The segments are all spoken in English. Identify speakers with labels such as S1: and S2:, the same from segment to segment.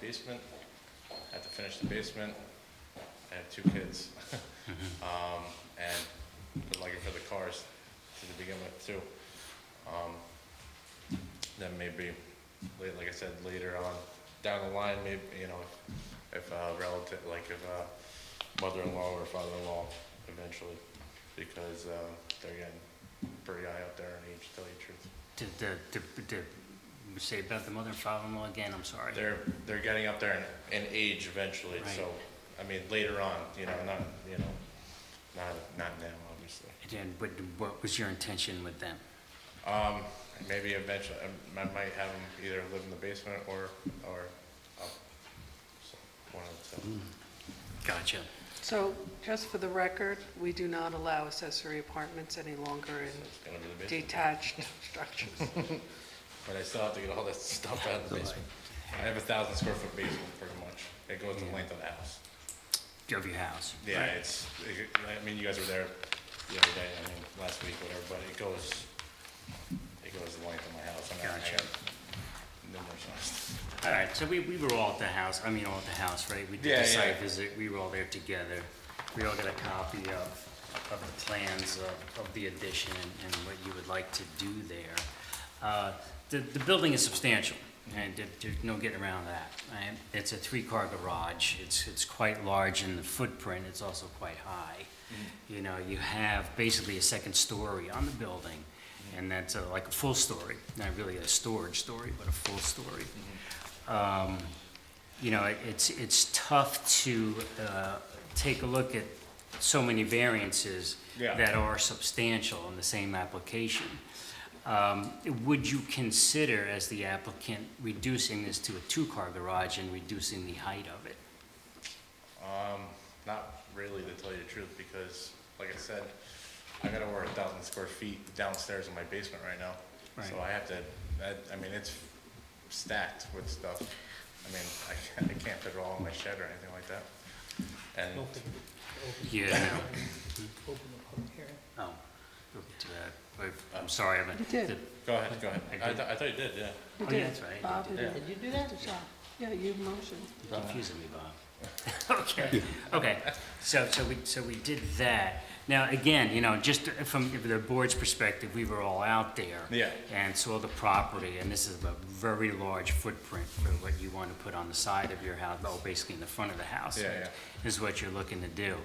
S1: basement. Had to finish the basement. I have two kids. Um, and been looking for the cars to begin with too. Um, then maybe, la- like I said, later on, down the line, maybe, you know, if uh relative, like if uh mother-in-law or father-in-law eventually, because uh, they're getting pretty high up there in age, to tell you the truth.
S2: The, the, the, the, say about the mother and father-in-law again, I'm sorry.
S1: They're, they're getting up there in, in age eventually,
S2: Right.
S1: so, I mean, later on, you know, not, you know, not, not now, obviously.
S2: And then what, what was your intention with them?
S1: Um, maybe eventually, um, I might might have them either live in the basement or, or up, so, one of the two.
S2: Gotcha.
S3: So, just for the record, we do not allow accessory apartments any longer in
S1: It's gonna be the basement.
S3: detached
S2: Oh,
S3: structures.
S1: But I still have to get all that stuff out of the basement. I have a thousand square foot basement, pretty much. It goes the length of the house.
S2: Of your house.
S1: Yeah,
S2: right?
S1: it's, it- I mean, you guys were there the other day, I mean, last week, whatever, but it goes, it goes the length of my house. and I- I
S2: Gotcha.
S1: got Numerous houses.
S2: All right, so we, we were all at the house, I mean, all at the house, right? We did
S1: Yeah,
S2: the site
S1: yeah.
S2: visit, we were all there together. We all got a copy of, of the plans of, of the addition and what you would like to do there. Uh, The, the building is substantial, and there- there's no getting around that. And It's a three-car garage, it's, it's quite large in the footprint, it's also quite high.
S1: Mm-hmm.
S2: You know, you have basically a second story on the building, and that's uh, like a full story, not really a storage story, but a full story
S1: Mm-hmm.
S2: um, you know, it- it's, it's tough to uh, take a look at so many variances
S1: Yeah.
S2: that are substantial in the same application. Um, Would you consider, as the applicant, reducing this to a two-car garage and reducing the height of it?
S1: Not really, to tell you the truth, because, like I said, I got over a thousand square feet downstairs in my basement right now. So
S2: Right.
S1: I have to, I, I mean, it's stacked with stuff. I mean, I can't, I can't fit it all in my shed or anything like that. And,
S2: Yeah.
S4: Open the public hearing.
S2: Oh, we'll get to that. I- I'm sorry, but.
S3: You did.
S2: the-
S1: go ahead, go ahead.
S2: I
S1: I,
S2: did.
S1: th- I thought you did, yeah.
S3: You
S2: Oh, yeah,
S3: did.
S2: that's right, you
S3: Bob, you
S2: did.
S3: did.
S4: Did you do that?
S3: Yeah, you motioned.
S2: You're confusing me, Bob. Okay, okay, so, so we, so we did that. Now, again, you know, just from the board's perspective, we were all out there.
S1: Yeah.
S2: And saw the property, and this is a very large footprint for what you want to put on the side of your house, well, basically in the front of the house.
S1: Yeah, yeah.
S2: Is what you're looking to do.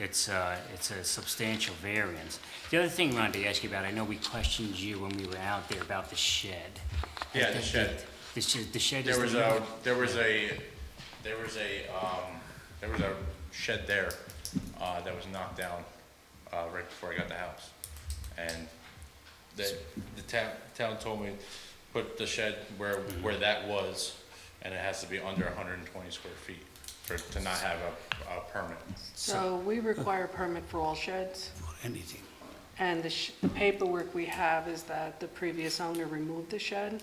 S2: It's, uh, it's a substantial variance. The other thing I wanted to ask you about, I know we questioned you when we were out there about the shed.
S1: Yeah, the shed.
S2: The shed, the shed is.
S1: There was
S2: the-
S1: a, there was a, there was a, um, there was a shed there, uh, that was knocked down, uh, right before I got the house. And the, the town, town told me, put the shed where, where that was, and it has to be under hundred and twenty square feet for, to not have a, a permit.
S3: So we require a permit for all sheds,
S5: anything.
S3: and the sh- the paperwork we have is that the previous owner removed the shed.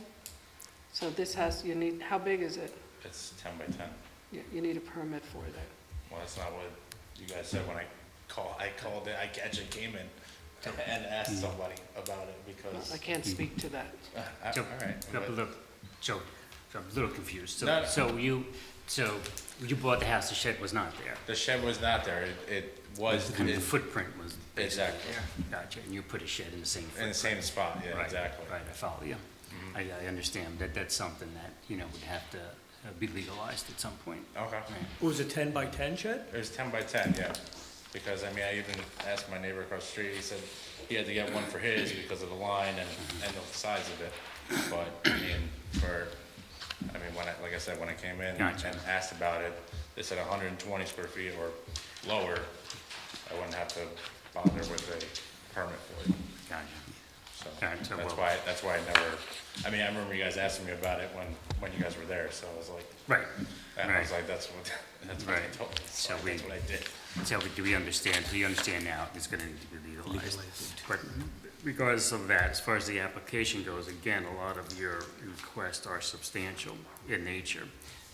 S3: So this has, you need, how big is it?
S1: It's ten by ten.
S3: You- You need a permit for that.
S1: Well, that's not what you guys said when I call, I called in, I actually came in and asked somebody about it because,
S3: I can't speak to that.
S1: I- all
S2: So,
S1: right.
S2: look,
S1: but-
S2: look, so, so I'm a little confused.
S1: No,
S2: So,
S1: no.
S2: so you, so you bought the house, the shed was not there.
S1: The shed was not there, it, it was
S2: Kind of
S1: in-
S2: the footprint was basically
S1: Exactly.
S2: there. Gotcha, and you put a shed in the same
S1: in
S2: footprint.
S1: the same spot, yeah,
S2: Right,
S1: exactly. Mm-hmm.
S2: Right, I follow you. I, I understand that that's something that, you know, would have to uh, be legalized at some point.
S1: Okay,
S2: Right.
S4: Oh, It was a 10 by 10 shed?
S1: it was ten by ten, yeah, because, I mean, I even asked my neighbor across the street, he said he had to get one for his because of the line and, and the size of it, but, I mean, for, I mean, when I, like I said, when I came in
S2: Gotcha.
S1: and asked about it, they said hundred and twenty square feet or lower, I wouldn't have to bother with a permit for it.
S2: Gotcha.
S1: So
S2: Alright, so
S1: that's
S2: we'll-
S1: why, that's why I never, I mean, I remember you guys asking me about it when, when you guys were there, so I was like,
S2: Right,
S1: and I was
S2: right.
S1: like, that's what, that's what I
S2: Right.
S1: told, so
S2: So we-
S1: that's what I did.
S2: So we- do we understand, do you understand now it's gonna need to be legalized? But regardless of that, as far as the application goes, again, a lot of your requests are substantial in nature.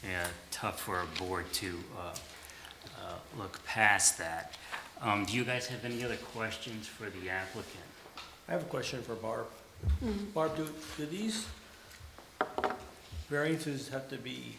S2: And tough for a board to, uh, uh, look past that. Um, do you guys have any other questions for the applicant?
S4: I have a question for Barb. Barb, do, do these variances have to be